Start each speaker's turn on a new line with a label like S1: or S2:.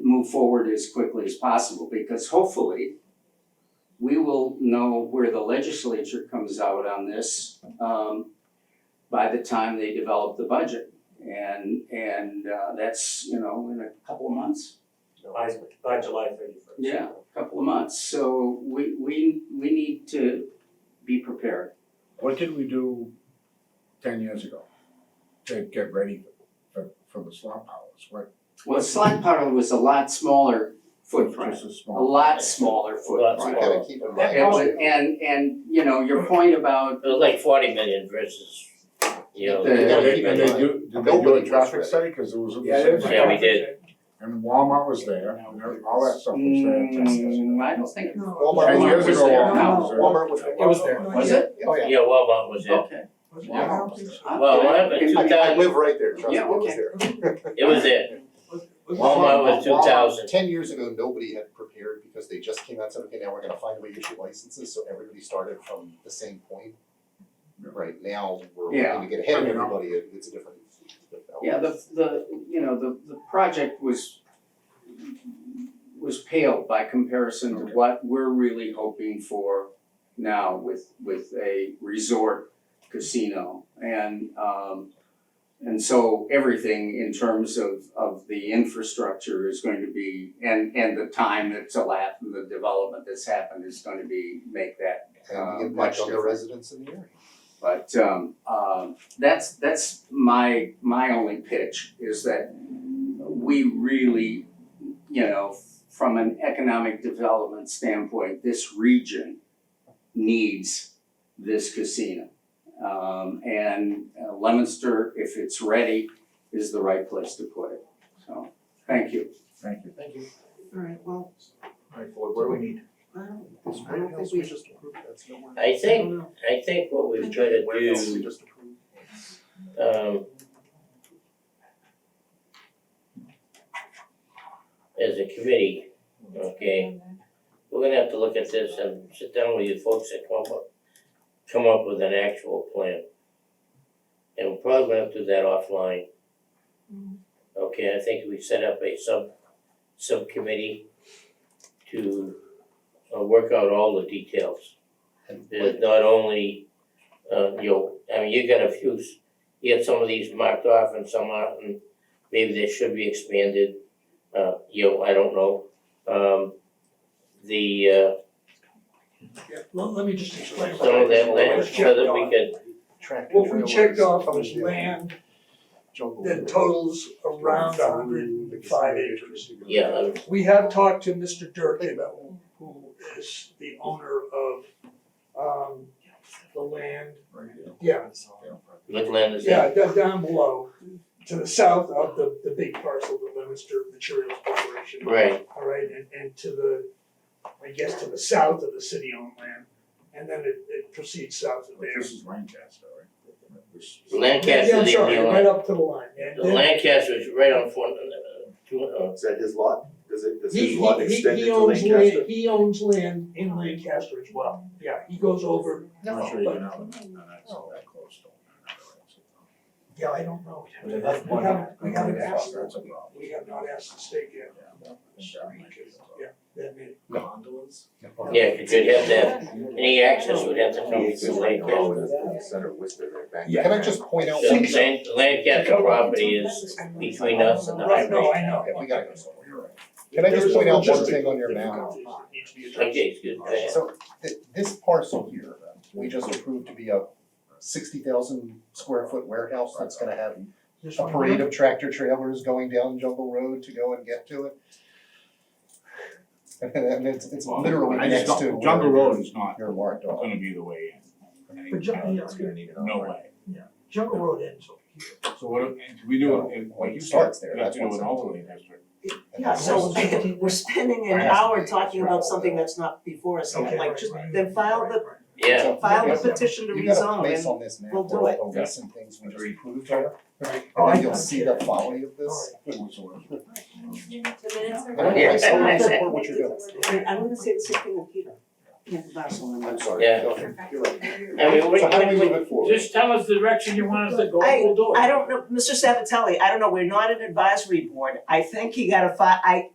S1: move forward as quickly as possible, because hopefully we will know where the legislature comes out on this, um, by the time they develop the budget. And, and, uh, that's, you know, in a couple of months,
S2: By, by July thirty first.
S1: Yeah. couple of months, so we, we, we need to be prepared.
S3: What did we do ten years ago to get ready for, for the slump hours? What,
S1: Well, slide pile was a lot smaller footprint,
S3: just a
S1: a
S3: small.
S1: lot smaller footprint.
S4: You
S2: Right.
S4: gotta keep in
S2: That
S4: mind,
S1: It
S2: cost-
S1: was, and, and, you know, your point about,
S5: It was like forty million versus, you know.
S1: The-
S4: you
S3: And
S4: gotta
S3: they,
S4: keep
S3: and
S4: in
S3: they
S4: mind,
S3: do, did they do
S4: Nobody
S3: a
S4: was
S3: traffic
S4: ready.
S3: study? Cause it was.
S2: Yeah, there was a
S5: Yeah, we
S2: traffic
S5: did.
S2: jam.
S3: And Walmart was there, and there- all that stuff was there.
S1: mm, I don't think.
S4: Walmart
S3: Ten years
S1: was
S3: ago,
S1: there.
S3: Walmart was
S4: Walmart
S3: there.
S4: Walmart was.
S2: It was there.
S1: Was it?
S4: Oh, yeah.
S5: Yeah, Walmart was it.
S1: Okay.
S3: Walmart was there.
S5: Well, whatever,
S4: I mean, I
S5: 2000
S4: live right there, trust me,
S1: Yeah,
S4: it was
S1: okay.
S4: there.
S5: It was it. Walmart was two
S4: Walmart,
S5: thousand.
S4: Ten years ago, nobody had prepared because they just came out and said, okay, now we're gonna find a way to issue licenses, so everybody started from the same point. Right now, we're
S1: Yeah.
S4: going to get ahead of everybody, it- it's a different.
S1: Yeah, the, the, you know, the, the project was, was pale by comparison to
S3: Okay.
S1: what we're really hoping for now with, with a resort casino. And, um, and so everything in terms of, of the infrastructure is going to be, and, and the time that's elapsed and the development that's happened is going to be, make that
S4: And
S1: Uh,
S4: the
S1: much
S4: impact on the
S1: different.
S4: residents in the area.
S1: But um um that's that's my my only pitch is that we really, you know, from an economic development standpoint, this region needs this casino. Um and uh, Lemonster, if it's ready, is the right place to put it. So, thank you.
S3: Thank you.
S6: Alright, well,
S4: Alright, Floyd, what do we need?
S6: I don't,
S4: This
S6: I don't
S4: else
S6: think
S4: we
S6: we,
S4: just approved, that's nowhere.
S5: I
S6: I
S5: think,
S6: don't know.
S5: I think what we've tried to
S4: Where else we
S5: do,
S4: just approved?
S5: um, as a committee, okay, we're gonna have to look at this and sit down with you folks and come up, come up with an actual plan. And we're probably gonna have to do that offline. Okay, I think we set up a sub, subcommittee to uh work out all the details.
S4: And
S5: There's not only, uh, you know, I mean, you got a few, s- you have some of these marked off and some aren't, and maybe they should be expanded, uh, you know, I don't know. Um, the, uh,
S7: Yeah, let, let me just explain.
S5: some of that land, so that we could,
S4: Track and
S7: What we checked
S4: trailers,
S7: off
S4: coming
S7: was
S4: down,
S7: land
S4: jungle.
S7: that totals around a hundred and five acres.
S5: yeah, uh,
S7: We have talked to Mr. Durkin, who- who is the owner of, um, the land. Yeah,
S5: what land is
S7: yeah,
S5: that?
S7: down, down below, to the south of the, the big parcel, the Lemonster Materials Corporation.
S5: Right,
S7: all right, and and to the, I guess to the south of the city owned land. And then it it proceeds south of
S3: But
S7: there.
S3: This is Lancaster, right? This-
S7: Yeah,
S5: Lancaster,
S7: I'm
S5: the,
S7: sorry,
S5: the
S7: right
S5: land,
S7: up to the line, and
S5: the
S7: then-
S5: Lancaster is right on four, uh, two, uh,
S8: Is that his lot? Does it, does
S7: He,
S8: his
S7: he,
S8: lot
S7: he-
S8: extend
S7: he
S8: into
S7: owns
S8: Lancaster?
S7: land, he owns land in Lancaster as well, yeah, he goes over,
S3: I'm not sure you know, but no, that's all that close to it.
S7: yeah, I don't know.
S2: But at that
S7: We
S2: point-
S7: haven't, we haven't asked,
S3: That's a problem.
S7: we have not asked the state yet,
S3: Yeah.
S7: yeah, that may,
S2: Gondolas?
S5: yeah, you could have that, any access would have to come through
S8: Oh,
S5: Lancaster.
S8: that's the center of Worcester right back.
S4: Can I just point out
S5: So
S4: one
S5: I'm saying, the Lancaster property is between us and the
S7: right,
S5: highway.
S7: no, I know.
S4: Okay, we gotta go somewhere, you're right. Can I just point out one thing on your map?
S7: Needs to be addressed.
S5: Okay, it's good, go ahead.
S4: So th- this parcel here, we just approved to be a sixty thousand square foot warehouse that's gonna have
S7: This
S4: a
S7: one
S4: parade
S7: here?
S4: of tractor trailers going down Jungle Road to go and get to it. And it's it's literally
S3: I just
S4: next to
S3: don't,
S4: where
S3: Jungle Road is not
S4: your marked off.
S3: gonna be the way in.
S7: But Jungle, yeah,
S8: It's gonna need an
S3: No
S8: outlet.
S3: way.
S7: Jungle Road ends over here,
S3: So what, if we do, if, like Oh, you said,
S4: Starts there,
S3: we have to
S4: that's
S3: do an
S4: what's-
S3: overlay district.
S4: And
S6: Yeah, so
S4: that's-
S6: we're spending an hour talking about something that's not before us,
S7: okay,
S6: like
S7: right,
S6: just
S7: right.
S6: then file the,
S5: Yeah,
S4: So-
S6: file
S4: Yeah.
S6: the petition to
S4: You got a
S6: rezone
S4: place
S6: and,
S4: on this map,
S6: we'll
S4: there
S6: do
S4: are
S6: it.
S4: the lists and things we
S3: Agreed.
S4: just approved here.
S7: Right.
S4: And
S7: Oh, I
S4: then you'll see the folly of this.
S3: Whatsoever.
S4: I don't know, I still don't support what you're doing.
S6: and I'm gonna say the same thing with Peter. Yeah, that's all I'm
S4: I'm
S6: gonna-
S4: sorry.
S5: Yeah.
S4: Go ahead. You're right.
S5: I mean, we
S4: So how do we
S5: can,
S4: move it forward?
S9: Just tell us the direction you want us to go,
S6: I-
S9: we'll do it.
S6: I don't know, Mr. Sabatelli, I don't know, we're not an advisory board, I think you gotta fi- I,